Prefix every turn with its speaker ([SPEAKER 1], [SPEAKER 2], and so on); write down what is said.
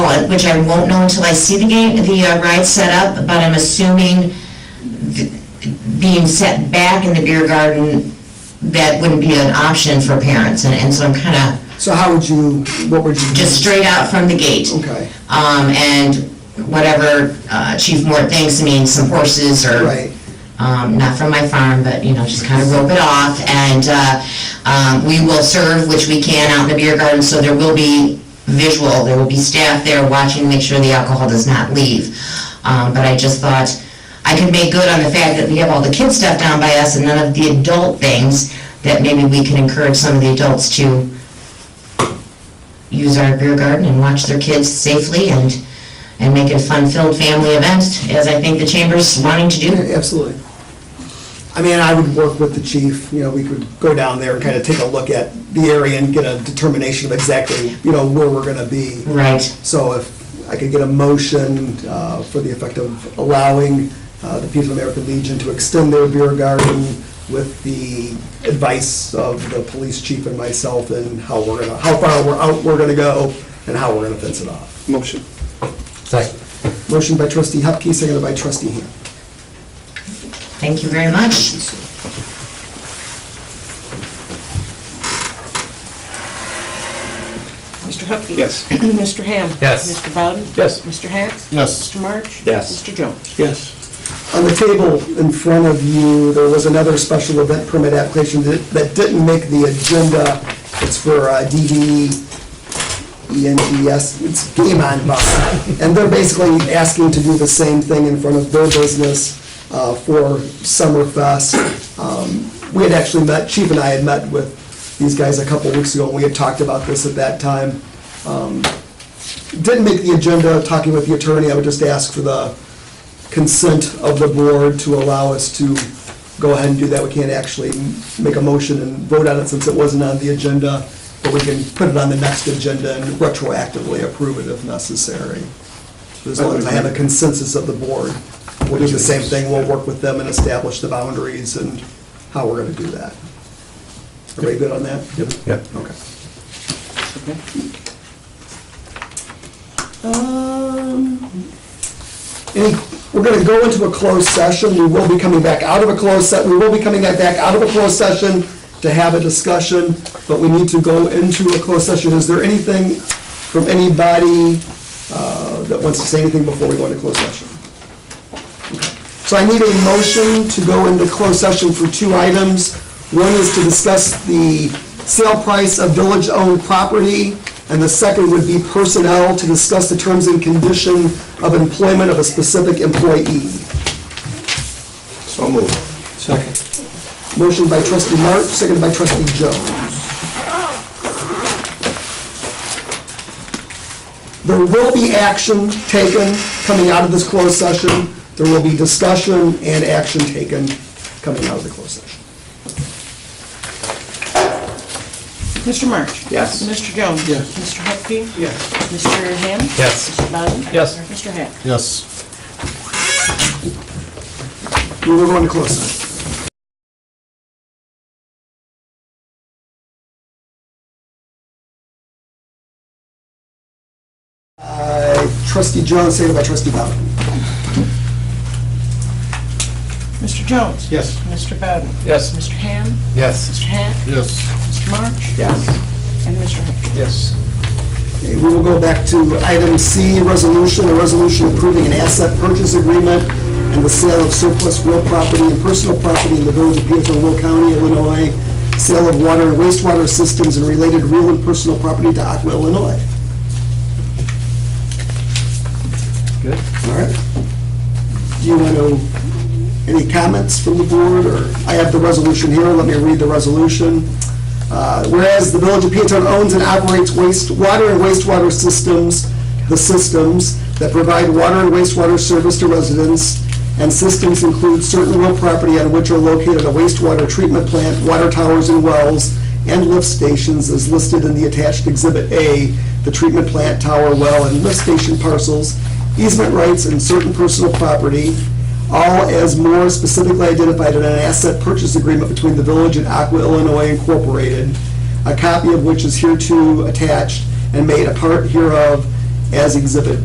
[SPEAKER 1] uh, which I won't know until I see the game, the uh, ride set up, but I'm assuming th- being set back in the beer garden, that wouldn't be an option for parents, and, and so I'm kinda
[SPEAKER 2] So how would you, what would you do?
[SPEAKER 1] just straight out from the gate.
[SPEAKER 2] Okay,
[SPEAKER 1] Um, and whatever uh, Chief Moore thinks, I mean, some horses or
[SPEAKER 2] right.
[SPEAKER 1] um, not from my farm, but, you know, just kind of rope it off, and, uh, um, we will serve, which we can, out in the beer garden, so there will be visual, there will be staff there watching, make sure the alcohol does not leave. Um, but I just thought, I could make good on the fact that we have all the kid stuff down by us and none of the adult things, that maybe we can encourage some of the adults to use our beer garden and watch their kids safely and, and make it a fun-filled family event, as I think the chamber's wanting to do.
[SPEAKER 2] Yeah, Absolutely. I mean, I would work with the chief, you know, we could go down there and kind of take a look at the area and get a determination of exactly, you know, where we're gonna be.
[SPEAKER 1] Right.
[SPEAKER 2] So if I could get a motion uh, for the effect of allowing uh, the People of American Legion to extend their beer garden with the advice of the police chief and myself and how we're gonna, how far we're out, we're gonna go, and how we're gonna fence it off.
[SPEAKER 3] Motion.
[SPEAKER 4] Second.
[SPEAKER 2] Motion by trustee Hupkey, seconded by trustee Ham.
[SPEAKER 1] Thank you very much.
[SPEAKER 5] Mr. Hupkey.
[SPEAKER 3] Yes.
[SPEAKER 5] Mr. Ham.
[SPEAKER 4] Yes.
[SPEAKER 5] Mr. Bowden.
[SPEAKER 3] Yes.
[SPEAKER 5] Mr. Hatch.
[SPEAKER 4] Yes.
[SPEAKER 5] Mr. March.
[SPEAKER 3] Yes.
[SPEAKER 5] Mr. Jones.
[SPEAKER 3] Yes.
[SPEAKER 2] On the table in front of you, there was another special event permit application that that didn't make the agenda. It's for uh, E DD ENDS, it's Game On Bar. And they're basically asking to do the same thing in front of their business uh, for Summerfest. Um, We had actually met, Chief and I had met with these guys a couple weeks ago, and we had talked about this at that time. Um, Didn't make the agenda, talking with the attorney, I would just ask for the consent of the board to allow us to go ahead and do that. We can't actually make a motion and vote on it since it wasn't on the agenda, but we can put it on the next agenda and retroactively approve it if necessary. As long as I have a consensus of the board, we'll do the same thing, we'll work with them and establish the boundaries and how we're gonna do that. Everybody good on that? Yep.
[SPEAKER 4] Yep.
[SPEAKER 2] Okay.
[SPEAKER 5] Okay. Um,
[SPEAKER 2] Any, we're gonna go into a closed session, we will be coming back out of a closed se, we will be coming back out of a closed session to have a discussion, but we need to go into a closed session. Is there anything from anybody, uh, that wants to say anything before we go into closed session? So I need a motion to go into closed session for two items. One is to discuss the sale price of village-owned property, and the second would be personnel to discuss the terms and condition of employment of a specific employee.
[SPEAKER 3] So moved.
[SPEAKER 2] Motion by trustee March, seconded by trustee Jones. There will be action taken coming out of this closed session. There will be discussion and action taken coming out of the closed session.
[SPEAKER 5] Mr. March.
[SPEAKER 3] Yes.
[SPEAKER 5] Mr. Jones.
[SPEAKER 3] Yes.
[SPEAKER 5] Mr. Hupkey.
[SPEAKER 3] Yes.
[SPEAKER 5] Mr. Ham.
[SPEAKER 4] Yes.
[SPEAKER 5] Mr. Bowden.
[SPEAKER 3] Yes.
[SPEAKER 5] Mr. Hatch.
[SPEAKER 4] Yes.
[SPEAKER 2] We will go into closed session. Uh, Trustee Jones, seconded by trustee Bowden.
[SPEAKER 5] Mr. Jones.
[SPEAKER 3] Yes.
[SPEAKER 5] Mr. Bowden.
[SPEAKER 3] Yes.
[SPEAKER 5] Mr. Ham.
[SPEAKER 4] Yes.
[SPEAKER 5] Mr. Hatch.
[SPEAKER 4] Yes.
[SPEAKER 5] Mr. March.
[SPEAKER 3] Yes.
[SPEAKER 5] And Mr. Hupkey.
[SPEAKER 3] Yes.
[SPEAKER 2] Okay, we will go back to item C, resolution, a resolution approving an asset purchase agreement and the sale of surplus real property and personal property in the village of Peatone, Will County, Illinois, sale of water and wastewater systems and related real and personal property to Aqua, Illinois.
[SPEAKER 3] Good.
[SPEAKER 2] All right. Do you want to, any comments from the board, or, I have the resolution here, let me read the resolution. Uh, Whereas the Village of Peatone owns and operates wastewater and wastewater systems, the systems that provide water and wastewater service to residents, and systems include certain real property on which are located a wastewater treatment plant, water towers and wells, and lift stations as listed in the attached Exhibit A, the treatment plant, tower, well, and lift station parcels, easement rights, and certain personal property, all as more specifically identified in an asset purchase agreement between the village and Aqua Illinois Incorporated, a copy of which is hereto attached and made a part hereof, as exhibit